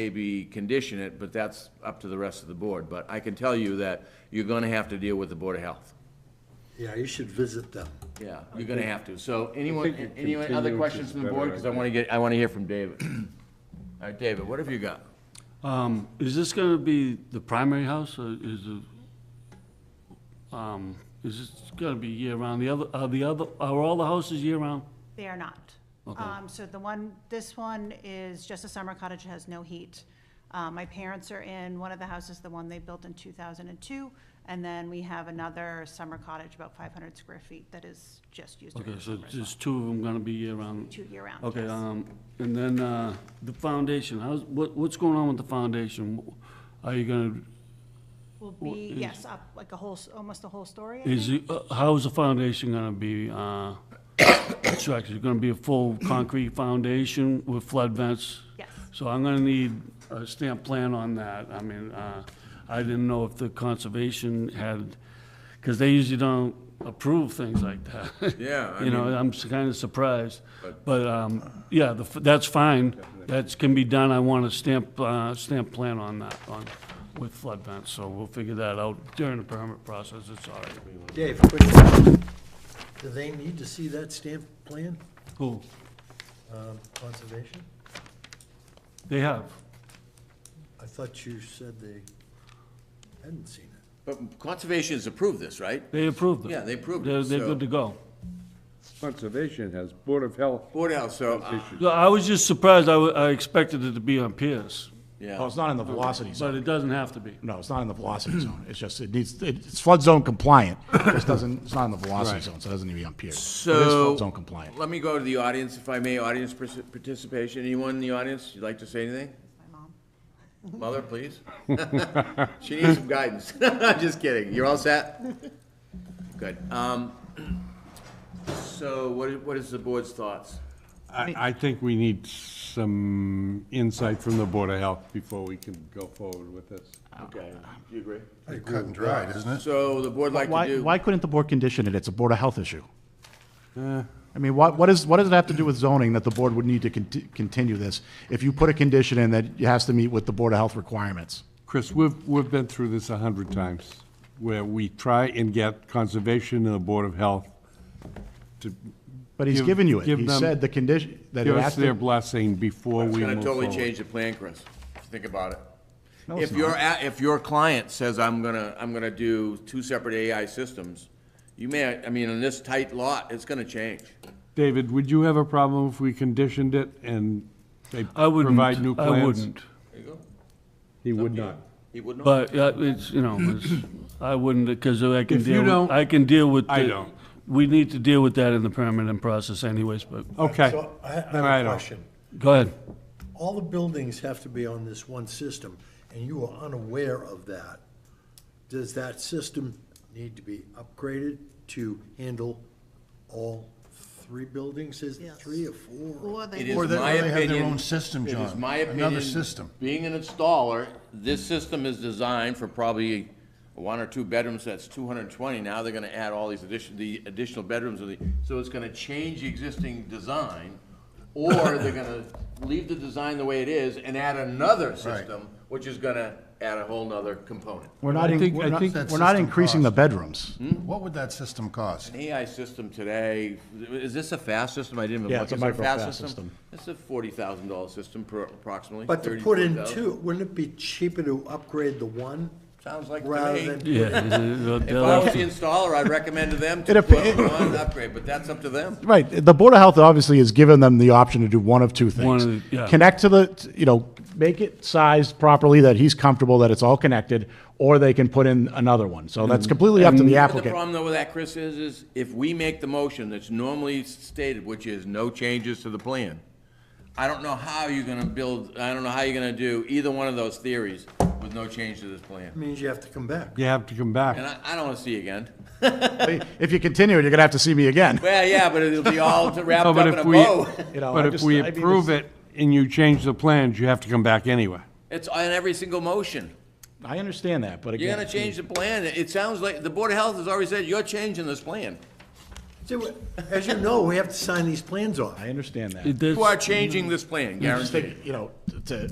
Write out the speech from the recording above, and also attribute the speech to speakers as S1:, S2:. S1: maybe condition it, but that's up to the rest of the board. But I can tell you that you're gonna have to deal with the Board of Health.
S2: Yeah, you should visit them.
S1: Yeah, you're gonna have to. So anyone,
S3: think you
S1: anyone other
S3: continue,
S1: questions
S3: which
S1: from
S3: is
S1: the board?
S3: better, I
S1: Because I wanna get, I wanna hear from David. All right, David, what have you got?
S4: Um, Is this going to be the primary house, or is it, um, is this going to be year-round? The other, are the other, are all the houses year-round?
S5: They are not.
S4: Okay.
S5: Um, So the one, this one is just a summer cottage, it has no heat. Uh, My parents are in one of the houses, the one they built in 2002, and then we have another summer cottage, about 500 square feet, that is just used
S4: Okay,
S5: during the
S4: so
S5: summer as well.
S4: there's two of them going to be year-round?
S5: Two year-round,
S4: Okay,
S5: yes.
S4: um, and then uh, the foundation, how's, what, what's going on with the foundation? Are you going
S5: Will be,
S4: is-
S5: yes, up like a whole, s- almost a whole story, I
S4: to, is,
S5: think.
S4: it- uh, how's the foundation going to be uh, constructed? Is it going to be a full concrete foundation with flood vents?
S5: Yes.
S4: So I'm gonna need a stamp plan on that. I mean, uh, I didn't know if the conservation had, because they usually don't approve things like that.
S1: Yeah, I
S4: You know,
S1: mean-
S4: I'm kind of surprised. But, um, yeah, the f- that's fine. That's can be done. I want a stamp, uh, stamp plan on that, on, with flood vents. So we'll figure that out during the permit process. It's all right.
S2: Dave, quick, do they need to see that stamp plan,
S4: Cool.
S2: um, conservation?
S4: They have.
S2: I thought you said they hadn't seen it.
S1: But Conservation has approved this, right?
S4: They approved it.
S1: Yeah, they approved it,
S4: They're, they're
S1: so-
S4: good to go.
S3: Conservation has Board of Health
S1: Board of Health, so, uh,
S3: issues.
S4: Yeah, I was just surprised. I, wa- I expected it to be on Pierce.
S6: Well,
S1: yeah,
S6: it's not in the velocity zone.
S4: But it doesn't have to be.
S6: No, it's not in the velocity zone. It's just, it needs, it- it's flood zone compliant. It just doesn't, it's not in the velocity zone, so it doesn't need to be on pier. It is
S1: so.
S6: flood zone compliant.
S1: Let me go to the audience, if I may, audience partic- participation. Anyone in the audience, you'd like to say anything?
S5: My mom.
S1: Mother, please. She needs some guidance. Just kidding. You're all set? Good. Um, so what is, what is the board's thoughts?
S3: I, I think we need some insight from the Board of Health before we can go forward with this.
S1: Okay, do you agree?
S7: Cut and dried, isn't it?
S1: So the board like to
S6: Why,
S1: do.
S6: why couldn't the board condition it? It's a Board of Health issue.
S3: Eh.
S6: I mean, what, what is, what does it have to do with zoning that the board would need to conti- continue this? If you put a condition in that it has to meet with the Board of Health requirements?
S3: Chris, we've, we've been through this a hundred times, where we try and get Conservation and the Board of Health to
S6: But he's
S3: Give-
S6: given you it.
S3: give
S6: He
S3: them-
S6: said the condition, that it
S3: give
S6: has
S3: us their
S6: to.
S3: blessing before
S1: It's
S3: we
S1: gonna
S3: move
S1: totally
S3: forward.
S1: change the plan, Chris, if you think about it.
S6: No,
S1: If
S6: it's
S1: your,
S6: not.
S1: a- if your client says, I'm gonna, I'm gonna do two separate AI systems, you may, I mean, in this tight lot, it's gonna change.
S3: David, would you have a problem if we conditioned it and they
S4: I wouldn't.
S3: provide new plans?
S4: I wouldn't.
S3: He would not.
S1: He would not.
S4: But uh, it's, you know, it's- I wouldn't, because I can
S3: If you
S4: deal with,
S3: don't-
S4: I can deal with.
S3: I
S4: the-
S3: don't.
S4: We need to deal with that in the permitting process anyways, but,
S3: Okay.
S2: So I I
S3: Then I
S2: have a
S3: don't.
S2: question.
S4: go ahead.
S2: All the buildings have to be on this one system, and you are unaware of that. Does that system need to be upgraded to handle all three buildings? Is it three or four?
S1: It is
S7: Or they- or
S1: my
S7: they have their
S1: opinion-
S7: own system,
S1: It is
S7: John.
S1: my
S7: Another
S1: opinion,
S7: system.
S1: Being an installer, this system is designed for probably one or two bedrooms, that's two hundred and twenty. Now they're gonna add all these addition, the additional bedrooms, of the- so it's gonna change the existing design, or they're gonna leave the design the way it is and add another system, which is gonna add a whole nother component.
S6: We're not,
S3: I
S6: in-
S3: think-
S6: we're
S3: I
S6: not,
S3: think
S7: that
S6: we're not
S7: system
S6: increasing the
S7: cost.
S6: bedrooms.
S3: Hmm?
S7: What would that system cost?
S1: AI system today, is this a fast system? I didn't even look.
S6: Yeah, it's a
S1: Is it
S6: micro
S1: fast
S6: fast system.
S1: It's a forty thousand dollar system per approximately.
S2: But to
S1: 30,
S2: put in
S1: 40,000.
S2: two, wouldn't it be cheaper to upgrade the one?
S1: Sounds like to me.
S2: Rather than,
S4: Yeah. they'll-
S1: If
S4: they'll
S1: I
S4: have
S1: was
S4: to-
S1: the installer, I'd recommend to them
S6: It
S1: to
S6: appe-
S1: put on an upgrade, but that's up to them.
S6: Right, the Board of Health obviously has given them the option to do one of two
S4: One
S6: things.
S4: of the- yeah.
S6: Connect to the, you know, make it sized properly that he's comfortable that it's all connected, or they can put in another one. So that's completely up to the
S1: The
S6: applicant.
S1: problem though with that, Chris, is, is if we make the motion that's normally stated, which is no changes to the plan, I don't know how you're gonna build, I don't know how you're gonna do either one of those theories with no change to this plan.
S2: means you have to come back.
S3: You have to come back.
S1: And I, I don't wanna see you again.
S6: If you continue it, you're gonna have to see me again.
S1: Well, yeah, but it'll be all wrapped
S3: No,
S1: up
S3: but
S1: in a
S3: if we,
S1: bow.
S6: You know,
S3: but
S6: I
S3: if
S6: just-
S3: we
S6: I mean,
S3: approve
S6: this-
S3: it and you change the plans, you have to come back anyway.
S1: It's on every single motion.
S6: I understand that, but again.
S1: You're gonna change the plan. It sounds like, the Board of Health has already said, you're changing this plan.
S2: See, we- As you know, we have to sign these plans off.
S6: I understand that.
S4: it- that's-
S1: You are changing this plan,
S6: I just
S1: guaranteed.
S6: think, you know, to,